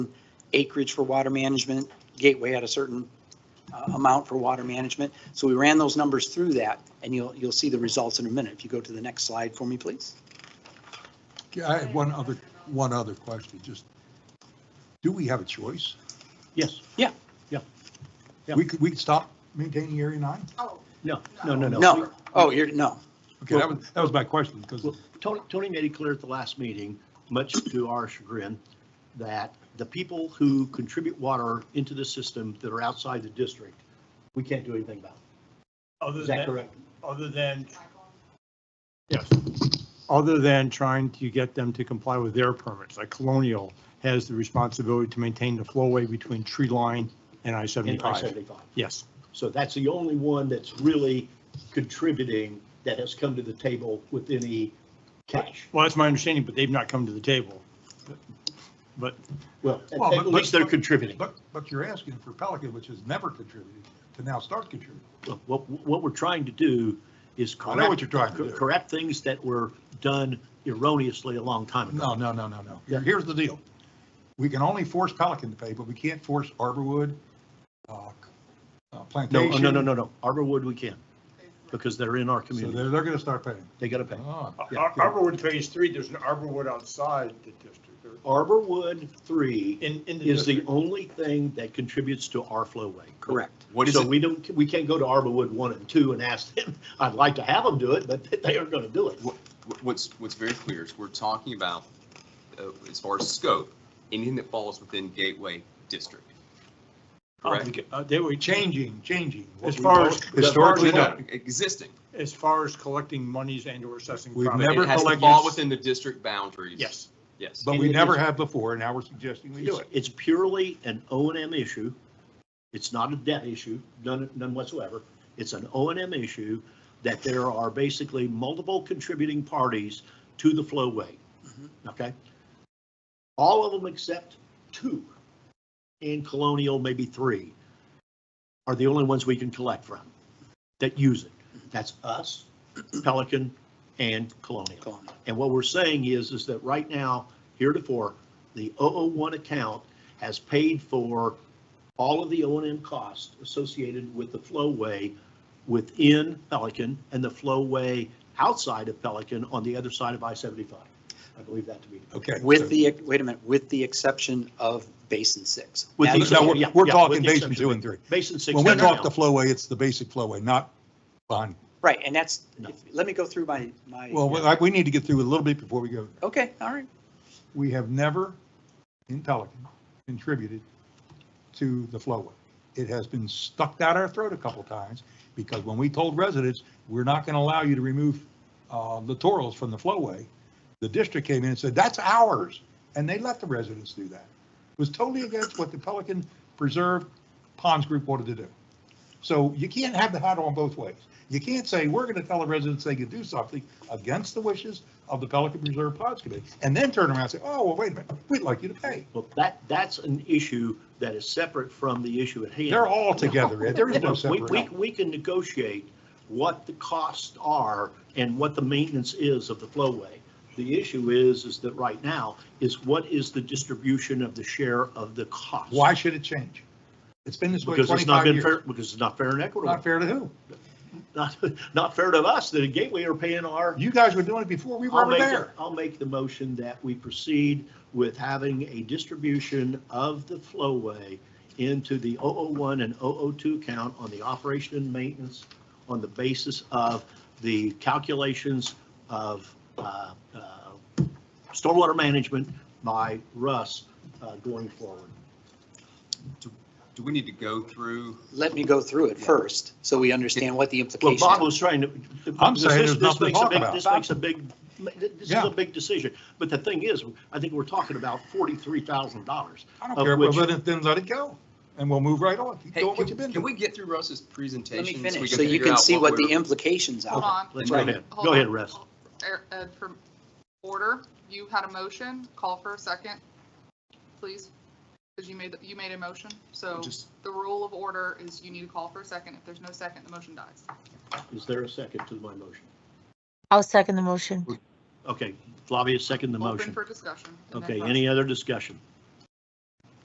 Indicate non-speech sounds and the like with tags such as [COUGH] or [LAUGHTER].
acreage for water management. Gateway had a certain uh, amount for water management. So we ran those numbers through that, and you'll, you'll see the results in a minute. If you go to the next slide for me, please. I have one other, one other question, just, do we have a choice? Yes, Yeah. We could, we could stop maintaining Area 9? Oh, no, no, no, no. No, oh, you're, no, Okay, that was, that was my question, because, Well, Tony, Tony made it clear at the last meeting, much to our chagrin, that the people who contribute water into the system that are outside the district, we can't do anything about. Other Is that than, correct? other than, Yes. Other than trying to get them to comply with their permits, like Colonial has the responsibility to maintain the flowway between tree line In and I I-75. seventy-five. Yes, So that's the only one that's really contributing that has come to the table with any cash. well, that's my understanding, but they've not come to the table. But- But Well, at- Well, at but- least they're but- contributing. but, but you're asking for Pelican, which has never contributed, to now start contributing. What, what we're trying to do is I correct. know what you're trying to do. Correct things that were done erroneously a long time ago. No, no, no, no, no. Here- Here's the deal. We can only force Pelican to pay, but we can't force Arborwood, uh, uh, No, Plantation. no, no, no, no. Arborwood, we can, because they're in our So community. they're, they're going to start paying. They gotta pay. Oh, Ar- Yeah. Ar- Arborwood Phase Three, there's an Arborwood outside the district, or Arborwood three in, in the is the district. only thing that contributes to our flowway. correct. What is So it, we don't, we can't go to Arborwood one and two and ask them, [LAUGHS] I'd like to have them do it, but they aren't gonna do it. wh- what's, what's very clear is we're talking about, uh, as far as scope, anything that falls within Gateway District. Um, Correct? uh, they were changed Changing, changing. what As we've far always- as- Historically, as far done. as- Existing. as far as collecting monies and or assessing. We've property. never- It has to collect- fall within the district boundaries. Yes, Yes. but we never have before, and now we're suggesting we do it. It's purely an O and M issue. It's not a debt issue, none, none whatsoever. It's an O and M issue that there are basically multiple contributing parties to the flowway. Mhm. Mm-hmm. Okay? All of them except two, and Colonial maybe three, are the only ones we can collect from that use it. Mm-hmm. That's us, Pelican, and Colonial. Colin. And what we're saying is, is that right now, heretofore, the 001 account has paid for all of the O and M costs associated with the flowway within Pelican and the flowway outside of Pelican on the other side of I-75. I believe that to be. Okay. so- With the, wait a minute, with the exception of Basin Six. With the That's- No, Yeah, we're, yeah, we're with talking the basin exception. two and three. Basin 6. When we No, no, talk no. the flowway, it's the basic flowway, not behind. Right, and that's, No. if- let me go through my, my. Well, we- I- we need to get through a little bit before we go. Okay, all right. We have never in Pelican contributed to the flowway. It has been stuck down our throat a couple times because when we told residents, we're not going to allow you to remove uh, littorals from the flowway, the district came in and said, that's ours. And they let the residents do that. It was totally against what the Pelican Preserve Ponds Group wanted to do. So you can't have the hat on both ways. You can't say, we're going to tell the residents they can do something against the wishes of the Pelican Preserve Ponds Committee, and then turn around and say, oh, well, wait a minute, we'd like you to pay. Well, that, that's an issue that is separate from the issue at hand. They're all together, Ed. there is no We, we, separation. we can negotiate what the costs are and what the maintenance is of the flowway. The issue is, is that right now, is what is the distribution of the share of the cost? Why should it change? It's been this way Because it's 25 not been years. fair, because it's not fair and Not equitable. fair to who? [LAUGHS] Not, not fair to us, that a Gateway are paying our You guys were doing it before we were ever I'll make- there. I'll make the motion that we proceed with having a distribution of the flowway into the 001 and 002 count on the operation and maintenance on the basis of the calculations of uh, uh, stormwater management by Russ uh, going forward. Do we need to go through? Let me go through it first, so we understand what the Well, implication. Bob is. was trying to. I'm saying this- there's this nothing to makes a talk big- about. This makes a big, this is Yeah. a big decision. But the thing is, I think we're talking about $43,000. I don't Of care, but which- let it- then let it go, and we'll move right on. Keep Hey, doing what you've been can can we doing. get through Russ's Let presentation? me finish, we so you figure can out see what the we're- implications hold are. on. Let's Right. go ahead. Hold Go on. ahead, Russ. Er, uh, for Order, you had a motion, call for a second, please, because you made, you made a motion. So Just, the rule of order is you need to call for a second. If there's no second, the motion dies. Is there a second to my motion? I'll second the motion. Okay, Flavia, second the Open motion. for discussion. and then Okay, vote. any other discussion?